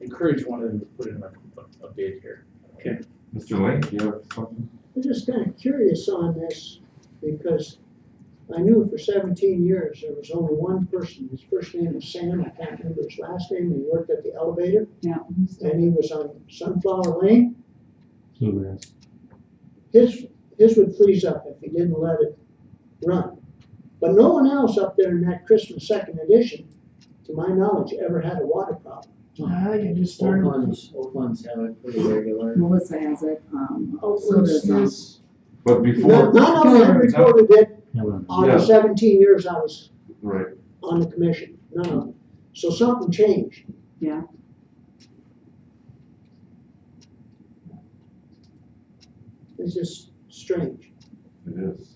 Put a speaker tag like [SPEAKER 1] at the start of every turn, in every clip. [SPEAKER 1] encourage one of them to put in a, a bid here.
[SPEAKER 2] Mr. Link, you have something?
[SPEAKER 3] I'm just kind of curious on this because I knew for seventeen years there was only one person. His first name was Sam. I can't remember his last name. He worked at the elevator
[SPEAKER 4] Yeah.
[SPEAKER 3] and he was on Sunflower Lane.
[SPEAKER 5] Bluegrass.
[SPEAKER 3] His, his would freeze up if he didn't let it run. But no one else up there in that Christmas second edition, to my knowledge, ever had a water problem.
[SPEAKER 6] Ah, you just started.
[SPEAKER 7] Oakland's, Oakland's have it pretty regular.
[SPEAKER 4] Melissa has it, um, so
[SPEAKER 6] Oakland's
[SPEAKER 4] does, um,
[SPEAKER 6] is-
[SPEAKER 2] But
[SPEAKER 3] None
[SPEAKER 2] before,
[SPEAKER 3] none of them recorded it on
[SPEAKER 2] Yeah.
[SPEAKER 3] the seventeen years I was
[SPEAKER 2] right,
[SPEAKER 3] on the commission, none of them. So something changed.
[SPEAKER 4] Yeah.
[SPEAKER 3] It's just strange.
[SPEAKER 2] it is.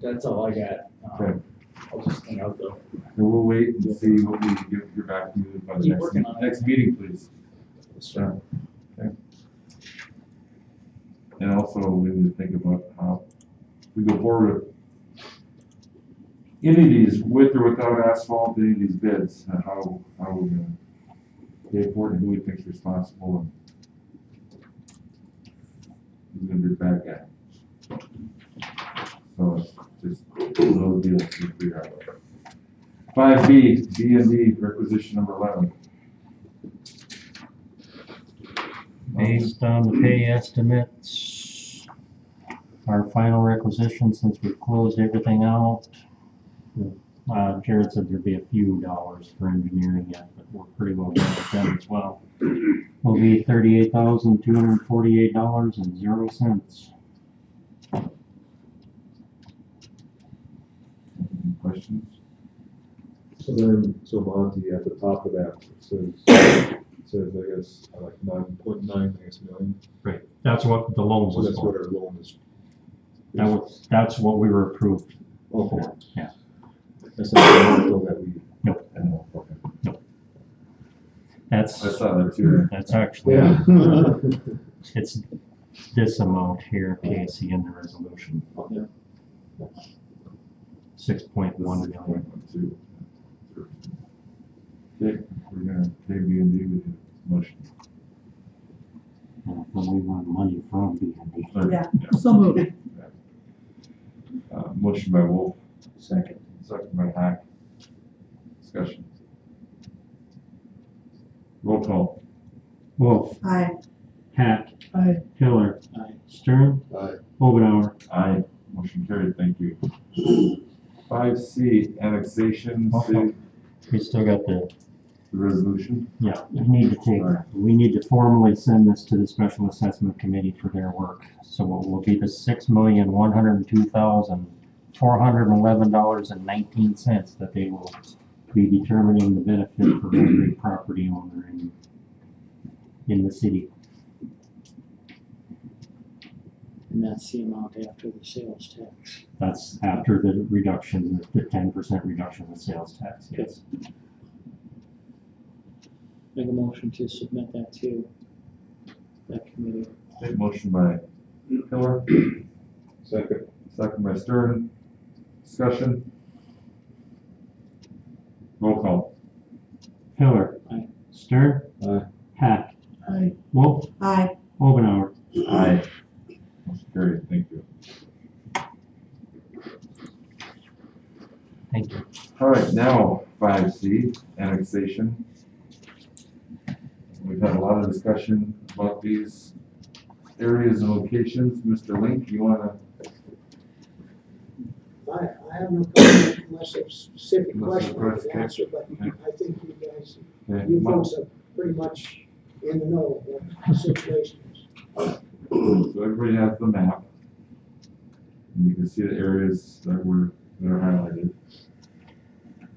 [SPEAKER 1] That's all I got.
[SPEAKER 2] Okay.
[SPEAKER 1] Um, I'll just hang out though.
[SPEAKER 2] And we'll wait and see what we can get your back to you by the
[SPEAKER 1] Keep
[SPEAKER 2] next,
[SPEAKER 1] working on it.
[SPEAKER 2] next meeting, please. Yeah, okay. And also, we need to think about how we go forward. with Any of these, with or without asphalt, any of these bids, and how, how we're gonna pay for it, and who we think's responsible, and who's gonna be the bad guy. So, it's just little deals to figure out. Five B, B and D, requisition number eleven.
[SPEAKER 5] Based on the pay estimates, our final requisition, since we've closed everything out, uh, Jared said there'd be a few dollars for engineering yet, but we're pretty well done with them as well. Will be thirty-eight thousand, two hundred and forty-eight dollars and zero cents.
[SPEAKER 2] Any questions?
[SPEAKER 8] So then, so Monty, at the top of that, it says, it says, I guess, uh, like nine point nine, I guess, million.
[SPEAKER 5] Right, that's what the loan
[SPEAKER 8] So that's what our loan is.
[SPEAKER 5] That was, that's what we were approved
[SPEAKER 8] Okay.
[SPEAKER 5] for, yeah.
[SPEAKER 8] That's not the article that we.
[SPEAKER 5] Nope.
[SPEAKER 8] Oh, okay.
[SPEAKER 5] That's,
[SPEAKER 2] I saw that too.
[SPEAKER 5] that's actually,
[SPEAKER 8] Yeah.
[SPEAKER 5] it's this amount here, Casey, in the resolution.
[SPEAKER 8] Okay.
[SPEAKER 5] six point one
[SPEAKER 2] Six
[SPEAKER 5] million.
[SPEAKER 2] point one two. Okay, we're gonna pay B and D with the motion.
[SPEAKER 5] And we want money from B and D.
[SPEAKER 2] Or,
[SPEAKER 4] Yeah. So moved.
[SPEAKER 2] Uh, motion by Wolf. Second. Second by Hack. Discussion. Roll call.
[SPEAKER 5] Wolf,
[SPEAKER 4] Hi.
[SPEAKER 5] Hack,
[SPEAKER 6] I
[SPEAKER 5] Hiller.
[SPEAKER 1] Aye.
[SPEAKER 5] Stern.
[SPEAKER 8] Aye.
[SPEAKER 5] Omenauer.
[SPEAKER 2] Aye. Motion carried, thank you. Five C, annexation, city,
[SPEAKER 5] We still got the,
[SPEAKER 2] the resolution.
[SPEAKER 5] yeah, we need to take,
[SPEAKER 2] Alright.
[SPEAKER 5] we need to formally send this to the special assessment committee for their work. So it will be the six million, one hundred and two thousand, four hundred and eleven dollars and nineteen cents that they will be determining the benefit for every property owner in, in the city.
[SPEAKER 7] And that's the amount after the sales tax.
[SPEAKER 5] That's after the reduction, the ten percent reduction in sales tax, yes.
[SPEAKER 7] Make a motion to submit that to that committee.
[SPEAKER 2] Okay, motion by Hiller,
[SPEAKER 8] Second.
[SPEAKER 2] second by Stern. Discussion. Roll call.
[SPEAKER 5] Pillar.
[SPEAKER 7] Aye.
[SPEAKER 5] Stern.
[SPEAKER 8] Aye.
[SPEAKER 5] Hack.
[SPEAKER 6] Aye.
[SPEAKER 5] Wolf.
[SPEAKER 4] Hi.
[SPEAKER 5] Obenauer.
[SPEAKER 2] Aye. Motion carried, thank you.
[SPEAKER 5] Thank you.
[SPEAKER 2] All right, now five C, annexation. We've had a lot of discussion about these areas and locations. Mr. Link, you wanna,
[SPEAKER 3] I, I have no comment unless there's a specific
[SPEAKER 2] Unless
[SPEAKER 3] question
[SPEAKER 2] there's a
[SPEAKER 3] I can
[SPEAKER 2] question.
[SPEAKER 3] answer, but
[SPEAKER 2] Okay.
[SPEAKER 3] I think you guys,
[SPEAKER 2] okay,
[SPEAKER 3] you
[SPEAKER 2] Mon-
[SPEAKER 3] folks are pretty much in the know of what the situation is.
[SPEAKER 2] so everybody has the map. And you can see the areas that were, that are highlighted.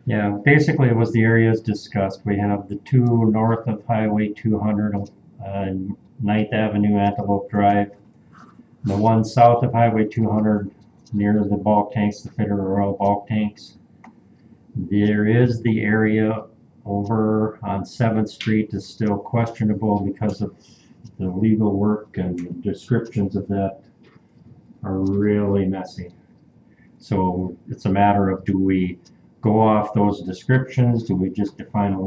[SPEAKER 5] Yeah, basically it was the areas discussed. We have the two north of Highway two hundred, uh, Ninth Avenue, Antelope Drive. The one south of Highway two hundred, near the bulk tanks, the Federal Oil bulk tanks. There is the area over on Seventh Street is still questionable because of the legal work and descriptions of that are really messy. So it's a matter of do we go off those descriptions? Do we just define a